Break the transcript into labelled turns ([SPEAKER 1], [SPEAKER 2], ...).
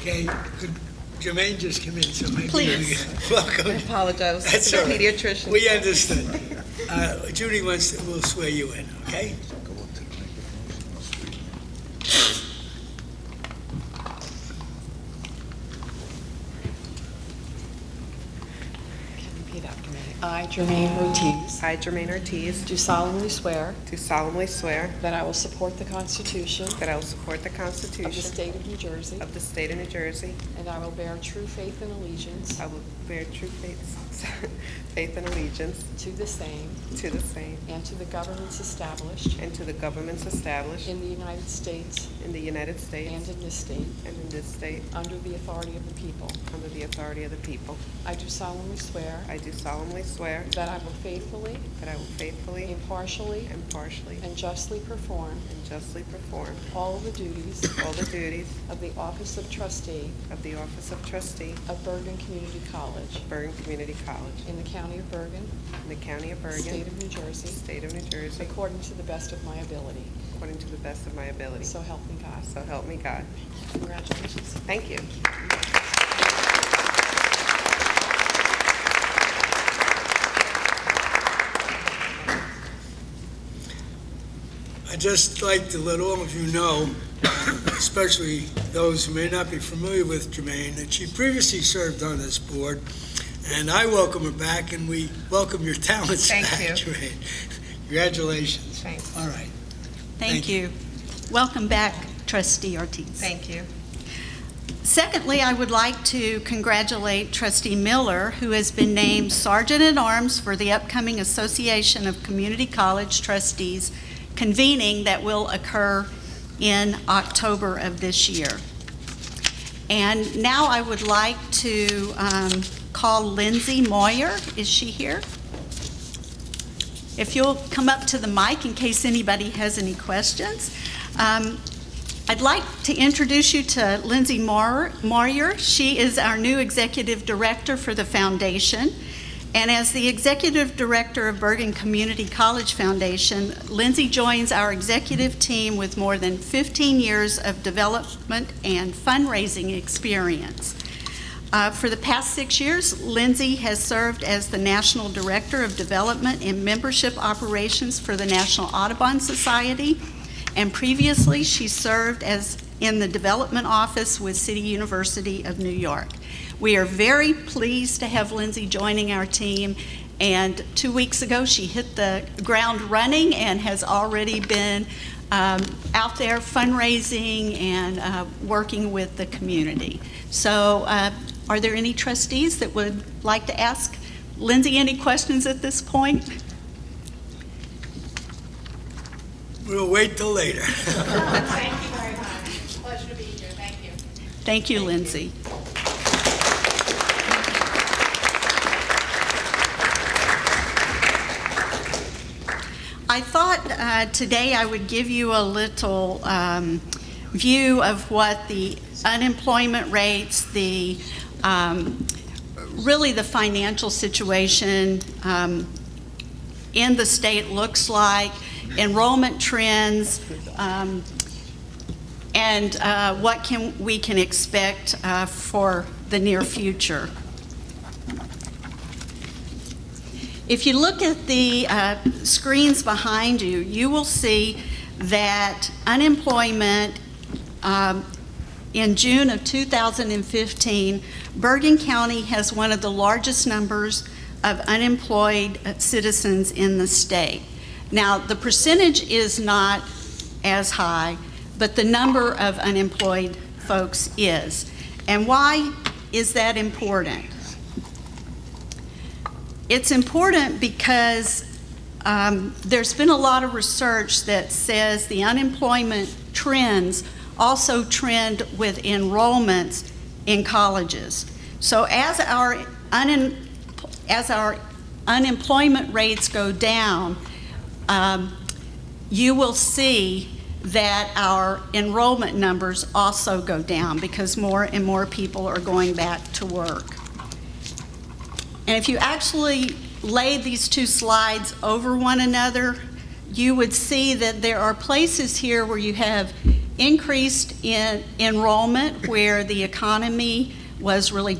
[SPEAKER 1] Okay, could Jermaine just come in, so maybe. we
[SPEAKER 2] Please.
[SPEAKER 1] can-
[SPEAKER 2] I
[SPEAKER 1] Welcome.
[SPEAKER 2] apologize.
[SPEAKER 1] That's
[SPEAKER 2] to the
[SPEAKER 1] all right.
[SPEAKER 2] pediatrician.
[SPEAKER 1] We understood. Uh, Judy wants, to- will swear you in, okay?
[SPEAKER 3] Repeat after me. I, Jermaine Ortiz,
[SPEAKER 4] I, Jermaine Ortiz,
[SPEAKER 3] do solemnly swear
[SPEAKER 4] do solemnly swear
[SPEAKER 3] that I will support the Constitution
[SPEAKER 4] that I will support the
[SPEAKER 3] of the
[SPEAKER 4] Constitution
[SPEAKER 3] State of New Jersey,
[SPEAKER 4] of the state of New Jersey.
[SPEAKER 3] and I will bear true faith and allegiance
[SPEAKER 4] I will bear true faith, faith and allegiance
[SPEAKER 3] to the same
[SPEAKER 4] to the same
[SPEAKER 3] and to the governments established
[SPEAKER 4] and to the governments established
[SPEAKER 3] in the United States
[SPEAKER 4] in the United
[SPEAKER 3] and
[SPEAKER 4] States
[SPEAKER 3] in this state,
[SPEAKER 4] and in this state
[SPEAKER 3] under the authority of the people.
[SPEAKER 4] under the authority of the people.
[SPEAKER 3] I do solemnly swear
[SPEAKER 4] I do solemnly swear
[SPEAKER 3] that I will faithfully,
[SPEAKER 4] that I will faithfully,
[SPEAKER 3] impartially,
[SPEAKER 4] impartially,
[SPEAKER 3] and justly perform
[SPEAKER 4] and justly perform
[SPEAKER 3] all the duties
[SPEAKER 4] all the duties
[SPEAKER 3] of the Office of Trustee
[SPEAKER 4] of the office of trustee
[SPEAKER 3] of Bergen Community College
[SPEAKER 4] of Bergen Community College
[SPEAKER 3] in the County of Bergen,
[SPEAKER 4] in the county of Bergen,
[SPEAKER 3] State of New Jersey,
[SPEAKER 4] state of New Jersey,
[SPEAKER 3] According to the best of my ability.
[SPEAKER 4] according to the best of my ability.
[SPEAKER 3] So help me God.
[SPEAKER 4] So help me God.
[SPEAKER 3] Congratulations.
[SPEAKER 4] Thank you.
[SPEAKER 1] I'd just like to let all of you know, especially those who may not be familiar with Jermaine, that she previously served on this board, and I welcome her back, and we welcome your talents
[SPEAKER 5] Thank
[SPEAKER 1] back,
[SPEAKER 5] you.
[SPEAKER 1] Jermaine. Congratulations.
[SPEAKER 5] Thanks.
[SPEAKER 1] All right. Thank
[SPEAKER 6] Thank you. Welcome back, trustee Ortiz.
[SPEAKER 5] Thank you.
[SPEAKER 6] Secondly, I would like to congratulate trustee Miller, who has been named Sergeant-at-Arms for the upcoming Association of Community College Trustees convening that will occur in October of this year. And now I would like to um, call Lindsay Moyer. Is she here? If you'll come up to the mic in case anybody has any questions. Um, I'd like to introduce you to Lindsay Moyer. Moyer. She is our new executive director for the foundation. And as the executive director of Bergen Community College Foundation, Lindsay joins our executive team with more than 15 years of development and fundraising experience. Uh, For the past six years, Lindsay has served as the National Director of Development and Membership Operations for the National Audubon Society, and previously, she served as in the Development Office with City University of New York. We are very pleased to have Lindsay joining our team, and two weeks ago, she hit the ground running and has already been um, out there fundraising and uh, working with the community. So uh, are there any trustees that would like to ask Lindsay any questions at this point?
[SPEAKER 1] We'll wait till later.
[SPEAKER 7] Thank you very much. It's a Pleasure to be here. Thank you.
[SPEAKER 6] Thank you, Lindsay. I thought uh, today I would give you a little um, view of what the unemployment rates, the, um, really the financial situation um, in the state looks like, enrollment trends, um, and uh, what can, we can expect uh, for the near future. If you look at the uh, screens behind you, you will see that unemployment um, in June of 2015, Bergen County has one of the largest numbers of unemployed uh, citizens in the state. Now, the percentage is not as high, but the number of unemployed folks is. And why is that important? It's important because um, there's been a lot of research that says the unemployment trends also trend with enrollments in colleges. So as our, unem- as our unemployment rates go down, um, you will see that our enrollment numbers also go down because more and more people are going back to work. And if you actually lay these two slides over one another, you would see that there are places here where you have increased in enrollment where the economy was really